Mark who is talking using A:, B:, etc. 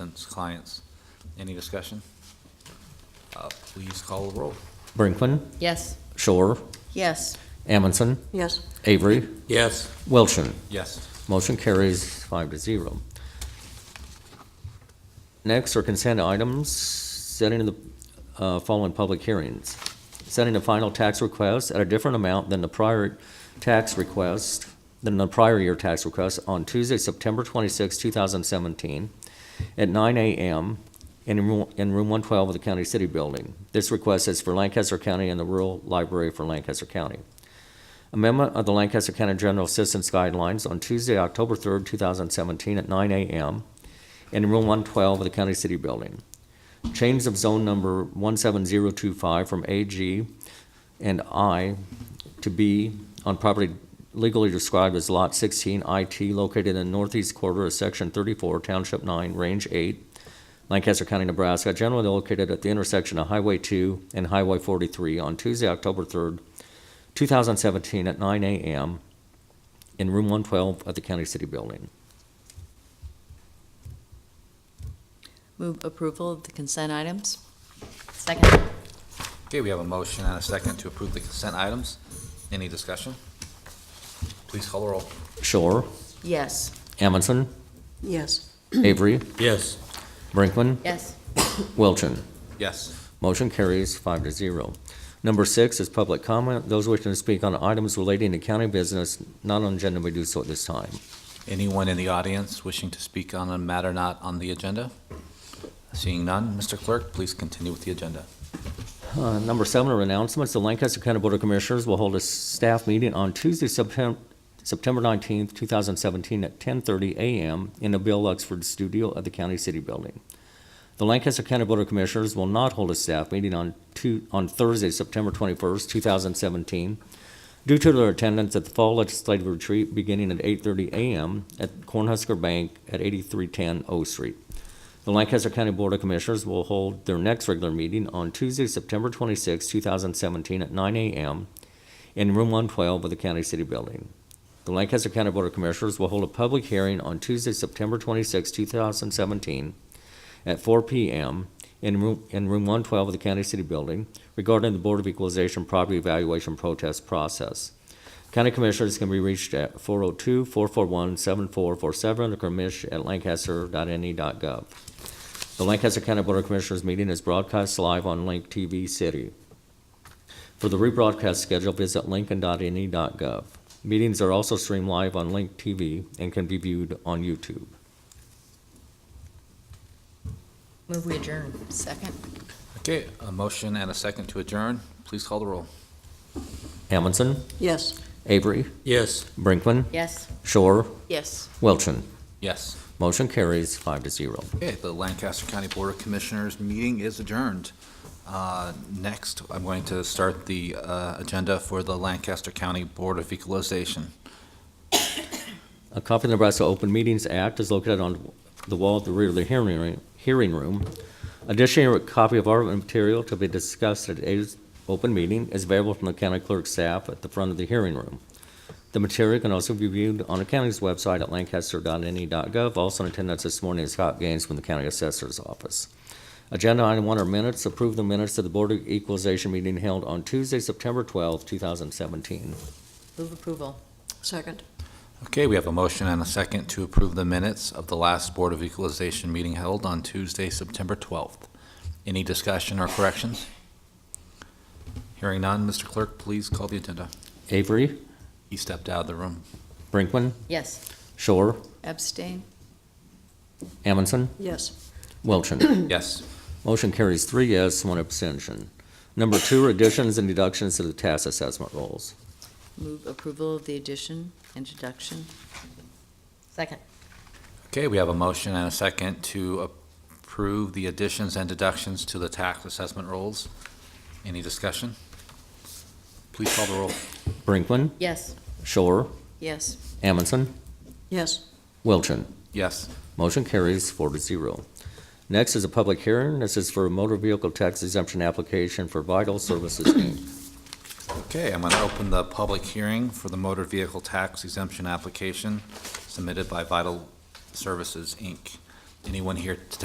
A: tenants, clients. Any discussion? Uh, Please call the roll.
B: Brinkman,
C: Yes.
B: Shore,
C: Yes.
B: Amundson,
C: Yes.
B: Avery,
D: Yes.
B: Wilson.
A: Yes.
B: Motion carries five to zero. Next are consent items, setting the uh, following public hearings. Setting the final tax request at a different amount than the prior tax request, than the prior year tax request on Tuesday, September 26, 2017, at 9 a.m. in room in room 112 of the County City Building. This request is for Lancaster County and the Rural Library for Lancaster County. Amendment of the Lancaster County General Assistance Guidelines on Tuesday, October 3rd, 2017, at 9 a.m. in Room 112 of the County City Building. Change of zone number 17025 from AG and I to B on property legally described as Lot 16 IT located in northeast quarter of Section 34, Township 9, Range 8, Lancaster County, Nebraska, generally located at the intersection of Highway 2 and Highway 43 on Tuesday, October 3rd, 2017 at 9 a.m. in room 112 of the County City Building.
C: Move approval of the consent items. Second.
A: Okay, we have a motion and a second to approve the consent items. Any discussion? Please call the roll.
B: Shore,
C: Yes.
B: Amundson,
C: Yes.
B: Avery,
D: Yes.
B: Brinkman,
C: Yes.
B: Wilchin.
A: Yes.
B: Motion carries five to zero. Number six is public comment. Those wishing to speak on items relating to county business not on agenda may do so at this time.
A: Anyone in the audience wishing to speak on a matter not on the agenda? Seeing none, Mr. Clerk, please continue with the agenda.
B: Uh, Number seven are announcements. The Lancaster County Board of Commissioners will hold a staff meeting on Tuesday, Septem- September 19th, 2017, at 10:30 a.m. in the Bill Luxford Studio at the County City Building. The Lancaster County Board of Commissioners will not hold a staff meeting on Tu- on Thursday, September 21st, 2017, due to their attendance at the Fall Legislative Retreat beginning at 8:30 a.m. at Cornhusker Bank at 8310 O Street. The Lancaster County Board of Commissioners will hold their next regular meeting on Tuesday, September 26, 2017, at 9 a.m. in Room 112 of the County City Building. The Lancaster County Board of Commissioners will hold a public hearing on Tuesday, September 26, 2017, at 4 p.m. in Room in Room 112 of the County City Building regarding the Board of Equalization property evaluation protest process. County Commissioners can be reached at 402-441-7447 or E commish@lancaster.ne.gov. The Lancaster County Board of Commissioners meeting is broadcast live on Link TV City. For the rebroadcast schedule, visit lincoln.ne.gov. E Meetings are also streamed live on Link TV and can be viewed on YouTube.
C: Move we adjourn. Second.
A: Okay, a motion and a second to adjourn. Please call the roll.
B: Amundson,
C: Yes.
B: Avery,
D: Yes.
B: Brinkman,
C: Yes.
B: Shore,
C: Yes.
B: Wilchin.
A: Yes.
B: Motion carries five to zero.
A: Okay, the Lancaster County Board of Commissioners meeting is adjourned. Uh, Next, I'm going to start the uh, agenda for the Lancaster County Board of Equalization.
B: A copy of the Nebraska Open Meetings Act is located on the wall at the rear of the hearing room- hearing room. Additionally, a copy of our material to be discussed at today's open meeting is available from the county clerk's staff at the front of the hearing room. The material can also be viewed on the county's website at lancaster.ne.gov. E Also in attendance this morning is Scott Gaines from the county assessor's office. Agenda item one are minutes. Approve the minutes of the Board of Equalization meeting held on Tuesday, September 12, 2017.
C: Move approval. Second.
A: Okay, we have a motion and a second to approve the minutes of the last Board of Equalization meeting held on Tuesday, September 12th. Any discussion or corrections? Hearing none, Mr. Clerk, please call the agenda.
B: Avery,
A: He stepped out of the room.
B: Brinkman,
C: Yes.
B: Shore,
C: Abstain.
B: Amundson,
C: Yes.
B: Wilchin.
A: Yes.
B: Motion carries three yes, one abstention. Number two, additions and deductions to the tax assessment rolls.
C: Move approval of the addition and deduction. Second.
A: Okay, we have a motion and a second to approve the additions and deductions to the tax assessment rolls. Any discussion? Please call the roll.
B: Brinkman,
C: Yes.
B: Shore,
C: Yes.
B: Amundson,
C: Yes.
B: Wilchin.
A: Yes.
B: Motion carries four to zero. Next is a public hearing. This is for a motor vehicle tax exemption application for Vital Services Inc.
A: Okay, I'm going to open the public hearing for the motor vehicle tax exemption application submitted by Vital Services, Inc. Anyone here to